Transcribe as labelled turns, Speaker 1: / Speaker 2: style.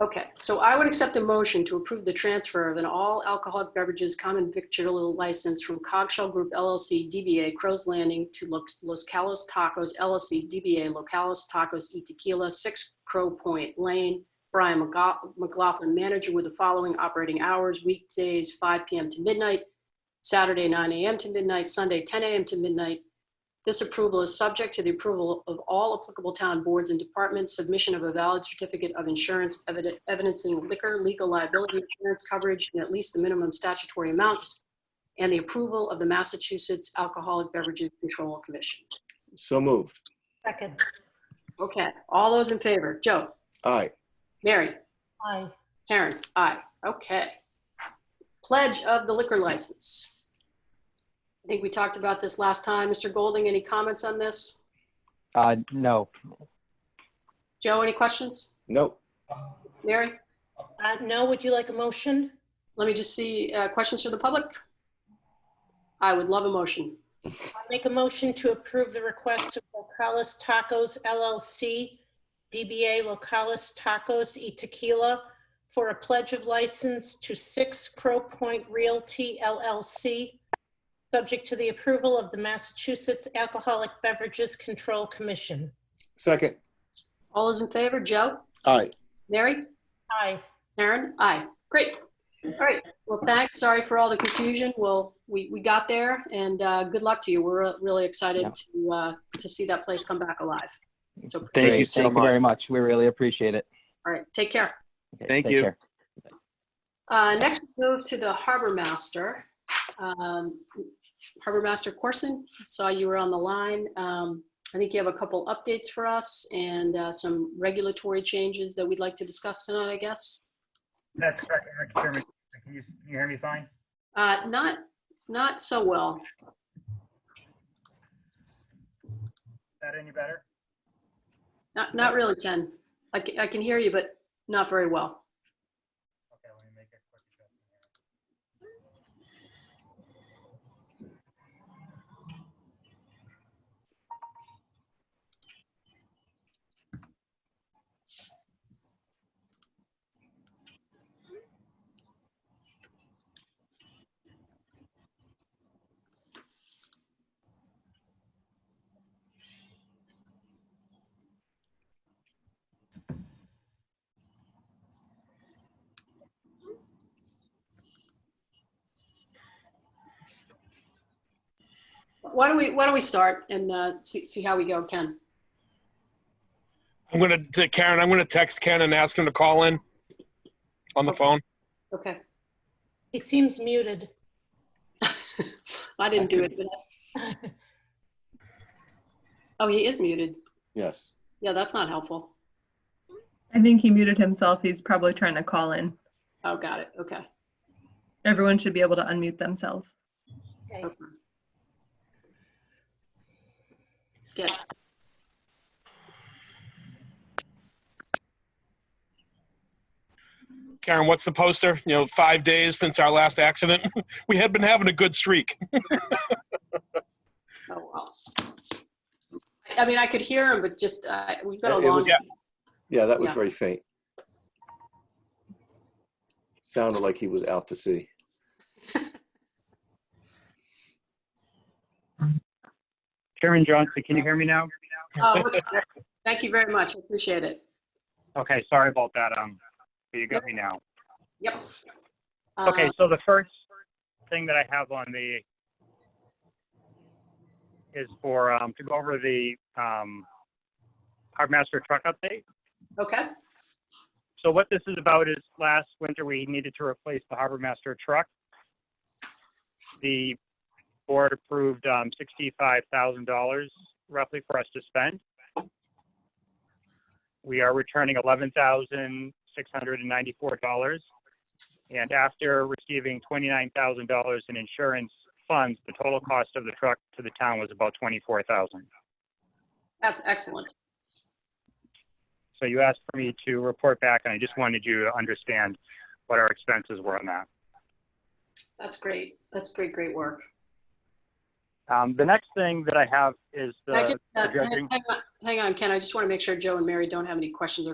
Speaker 1: Okay, so I would accept a motion to approve the transfer of an all alcoholic beverages common victual license from Cogshell Group LLC DBA Crow's Landing to Lo- Los Calos Tacos LLC DBA Locales Tacos y Tequila, 6 Crow Point Lane. Brian McGo- McLaughlin, manager, with the following operating hours: weekdays, 5 PM to midnight, Saturday, 9 AM to midnight, Sunday, 10 AM to midnight, this approval is subject to the approval of all applicable town boards and departments, submission of a valid certificate of insurance evide- evidencing liquor, legal liability, insurance coverage, and at least the minimum statutory amounts, and the approval of the Massachusetts Alcoholic Beverages Control Commission.
Speaker 2: So moved.
Speaker 3: Second.
Speaker 1: Okay, all those in favor? Joe?
Speaker 2: Aye.
Speaker 1: Mary?
Speaker 3: Aye.
Speaker 1: Karen? Aye. Okay. Pledge of the liquor license. I think we talked about this last time. Mr. Golding, any comments on this?
Speaker 4: Uh, no,
Speaker 1: Joe, any questions?
Speaker 2: No.
Speaker 1: Mary?
Speaker 3: Uh, No, would you like a motion?
Speaker 1: Let me just see, uh, questions from the public? I would love a motion.
Speaker 3: I Make a motion to approve the request of Locales Tacos LLC, DBA Locales Tacos y Tequila for a pledge of license to Six Crow Point Realty LLC, subject to the approval of the Massachusetts Alcoholic Beverages Control Commission.
Speaker 2: Second.
Speaker 1: All those in favor, Joe?
Speaker 2: Aye.
Speaker 1: Mary?
Speaker 3: Aye.
Speaker 1: Karen? Aye. Great. All right. Well, thanks. Sorry for all the confusion. Well, we, we got there and, uh, good luck to you. We're uh, really excited to, uh, to see that place come back alive. So, all
Speaker 4: great.
Speaker 5: Thank you so
Speaker 4: Thank you very
Speaker 5: much.
Speaker 4: much. We really appreciate it.
Speaker 1: right, take care.
Speaker 4: Okay,
Speaker 5: Thank
Speaker 4: take
Speaker 5: you.
Speaker 4: care.
Speaker 1: Uh, next, we move to the Harbor Master. Um, Harbor Master Corson, saw you were on the line. Um, I think you have a couple updates for us and uh, some regulatory changes that we'd like to discuss tonight, I guess.
Speaker 6: That's correct, Mr. Chairman. Can you, can you hear me fine?
Speaker 1: Uh, Not, not so well.
Speaker 6: Is that any better?
Speaker 1: Not, not really, Ken. I can, I can hear you, but not very well.
Speaker 6: Okay, let me make a quick adjustment here.
Speaker 1: Why don't we, why don't we start and uh, see, see how we go, Ken?
Speaker 7: I'm gonna to Karen. I'm gonna text Ken and ask him to call in on the phone.
Speaker 1: Okay.
Speaker 3: He seems muted.
Speaker 1: I didn't do it. did I? Oh, he is muted.
Speaker 2: Yes.
Speaker 1: Yeah, that's not helpful.
Speaker 8: I think he muted himself. He's probably trying to call in.
Speaker 1: Oh, got it. Okay.
Speaker 8: Everyone should be able to unmute themselves.
Speaker 3: Okay.
Speaker 1: Okay. Good.
Speaker 7: Karen, what's the poster? You know, five days since our last accident. we had been having a good streak.
Speaker 1: Oh, well. I- I mean, I could hear him, but just, uh, we've got a
Speaker 2: It- it
Speaker 1: long.
Speaker 2: was- Yeah, that was
Speaker 1: Yeah.
Speaker 2: very faint. Sounded like he was out to sea.
Speaker 5: Chairman Johnson, can you hear me now?
Speaker 1: Oh, okay. Thank you very much. I appreciate it.
Speaker 5: Okay, sorry about that. Um, but you got me now.
Speaker 1: Yep. Uh,
Speaker 5: Okay, so the first thing that I have on the is for, um, to go over the, um, Harbor Master truck update.
Speaker 1: Okay,
Speaker 5: So what this is about is last winter, we needed to replace the Harbor Master truck. The board approved um, $65,000 roughly for us to spend. We are returning $11,694. And after receiving $29,000 in insurance funds, the total cost of the truck to the town was about 24000
Speaker 1: that's excellent.
Speaker 5: So you asked for me to report back, and I just wanted you to understand what our expenses were on that.
Speaker 1: That's great. That's great, great work.
Speaker 5: Um, the next thing that I have is
Speaker 1: Can I just,
Speaker 5: the
Speaker 1: uh,
Speaker 5: judging.
Speaker 1: hang- hang on- Hang on, Ken, I just want to make sure Joe and Mary don't have any questions or